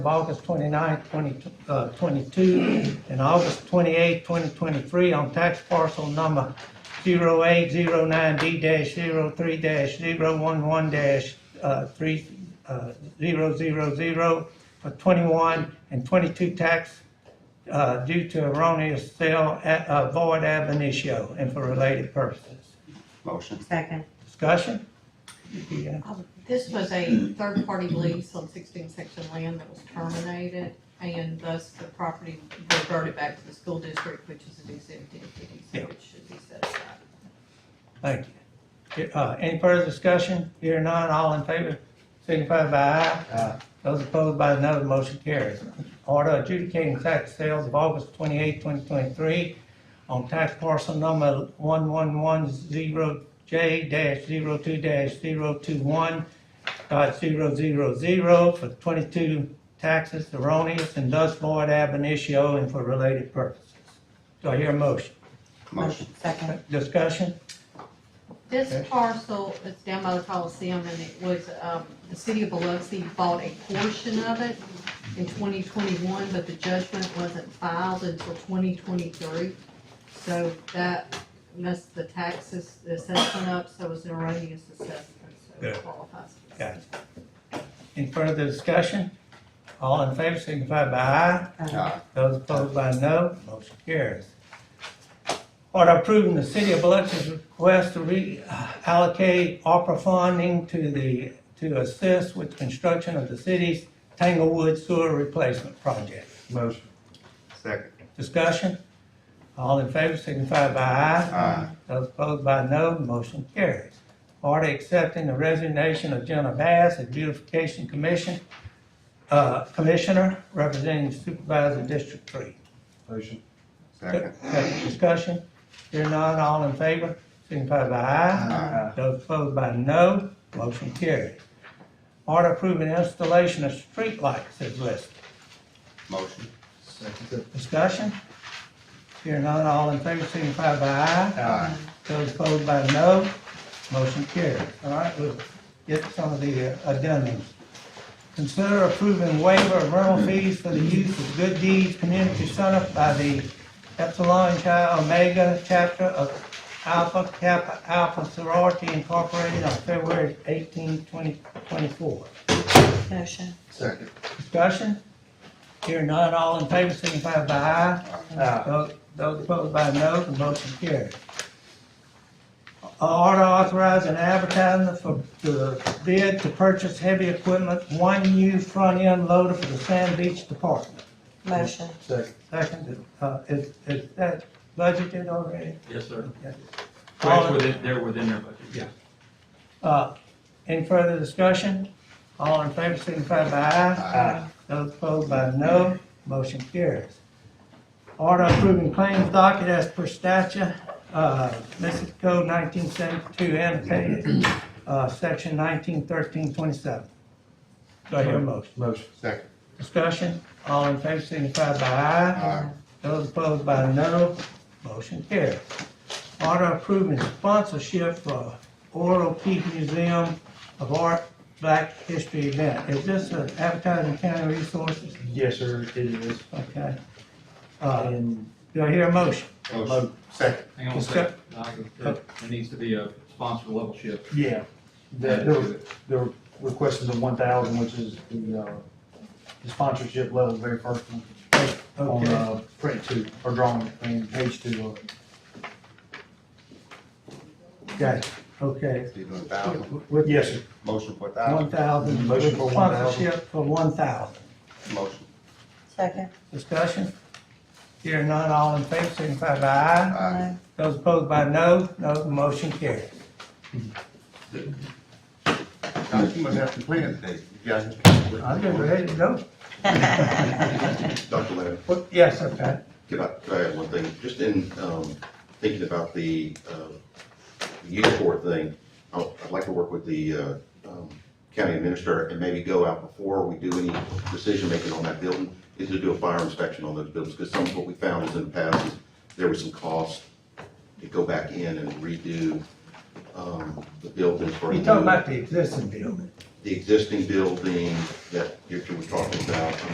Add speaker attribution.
Speaker 1: of August 29, 2022, and August 28, 2023 on tax parcel number uh, 0809D-03-011-3000 for 21 and 22 tax uh, due to erroneous sale at uh, void ab initio and for related purposes.
Speaker 2: Motion.
Speaker 3: Second.
Speaker 1: Discussion? Yeah.
Speaker 4: This was a third-party lease on sixteen section land that was terminated, and thus the property reverted back to the school district, which is a exempt entity, so
Speaker 1: Yeah.
Speaker 4: it should be set aside.
Speaker 1: Thank you. Uh, any further discussion? Here none, all in favor, signify by aye. Aye. Those opposed by no, the motion carries. Order adjudicating tax sales of August 28, 2023 on tax parcel number 1110J-02-021 dot zero zero zero for 22 taxes erroneous and thus void ab initio and for related purposes. Do I hear a motion?
Speaker 2: Motion.
Speaker 3: Second.
Speaker 1: Discussion? Okay.
Speaker 4: This parcel is down by the Coliseum, and it was, um, the city of Biloxi bought a portion of it in twenty twenty-one, but the judgment wasn't filed until twenty twenty-three. So that messed the taxes, the assessment up, so it was an erroneous assessment, so
Speaker 1: Yeah.
Speaker 4: it qualifies. for
Speaker 1: Gotcha. Any further discussion? All in favor signify by aye.
Speaker 3: Uh,
Speaker 2: Aye.
Speaker 1: Those opposed by no, motion carries. Order approving the city of Biloxi's request to reallocate ARPA funding to the, to assist with construction of the city's Tanglewood Sewer Replacement Project.
Speaker 2: Motion. Second.
Speaker 1: Discussion? All in favor signify by aye. Aye. Those opposed by no, motion carries. Order accepting the resignation of Jenna Bass as beautification commission, uh, commissioner representing supervisor District Three.
Speaker 5: Motion.
Speaker 2: Second.
Speaker 1: Discussion? Here none, all in favor signify by aye. Those opposed by no, motion carries. Order approving installation of streetlights is listed.
Speaker 2: Motion.
Speaker 5: Second.
Speaker 1: Discussion? Here none, all in favor, signify by aye.
Speaker 2: Aye.
Speaker 1: Those opposed by no, motion carries. All right, we'll get some of the uh, addendums. Consider approving waiver of rental fees for the use of Good Deeds Community Center by the Epsilon Chi Omega Chapter of Alpha Kappa Alpha Sorority Incorporated on February 18, 2024.
Speaker 3: Motion.
Speaker 5: Second.
Speaker 1: Discussion? Here none, all in favor, signify by aye.
Speaker 5: Aye.
Speaker 1: Those those opposed by no, the motion carries. Uh, Order authorizing advertising for the bid to purchase heavy equipment, one new front end loader for the Sand Beach Department.
Speaker 3: Motion.
Speaker 5: Second.
Speaker 1: Second, uh, is, is that budgeted already?
Speaker 6: Yes, sir.
Speaker 1: Okay.
Speaker 6: Well, it's within, they're within their budget.
Speaker 1: Yeah. Uh, any further discussion? All in favor, signify by aye. Those opposed by no, motion carries. Order approving claims docket as per statute, uh, Mississippi Code nineteen seventy-two, annotated, uh, section nineteen thirteen twenty-seven. Do I hear a motion?
Speaker 5: Motion.
Speaker 2: Second.
Speaker 1: Discussion, all in favor, signify by aye.
Speaker 2: Aye.
Speaker 1: Those opposed by no, motion carries. Order approving sponsorship for Oral Peak Museum of Art Black History Event. Is this an advertising county resources?
Speaker 5: Yes, sir, it is.
Speaker 1: Okay. Uh,
Speaker 5: And
Speaker 1: do I hear a motion?
Speaker 2: Motion. Second.
Speaker 6: Hang on a second. There there needs to be a sponsor level shift.
Speaker 5: Yeah, the, the, the request is a one thousand, which is the, uh, the sponsorship level, very first one. On,
Speaker 1: Okay,
Speaker 5: uh, print two, or drawing, I mean, page two of it.
Speaker 1: got it. okay.
Speaker 2: You doing thousand?
Speaker 1: With
Speaker 5: Yes, sir.
Speaker 2: Motion for
Speaker 1: one
Speaker 2: thousand?
Speaker 1: thousand,
Speaker 5: Motion for 1,000.
Speaker 1: sponsorship for one thousand.
Speaker 2: Motion.
Speaker 3: Second.
Speaker 1: Discussion? Here none, all in favor, signify by aye.
Speaker 2: Aye.
Speaker 1: Those opposed by no, no, the motion carries.
Speaker 2: Now, you must have some plans today. You got it?
Speaker 1: I'm just ready to go.
Speaker 7: Dr. Leonard,
Speaker 1: Well, Yes, sir, Pat.
Speaker 7: can I, can I add one thing? Just in, um, thinking about the, um, uniform thing, I'd I'd like to work with the, uh, um, county administrator and maybe go out before we do any decision-making on that building, is to do a fire inspection on those buildings, because some of what we found is in the past, is there was some cost to go back in and redo, um, the buildings for.
Speaker 1: You talking about the existing building?
Speaker 7: The existing building that Richard was talking about,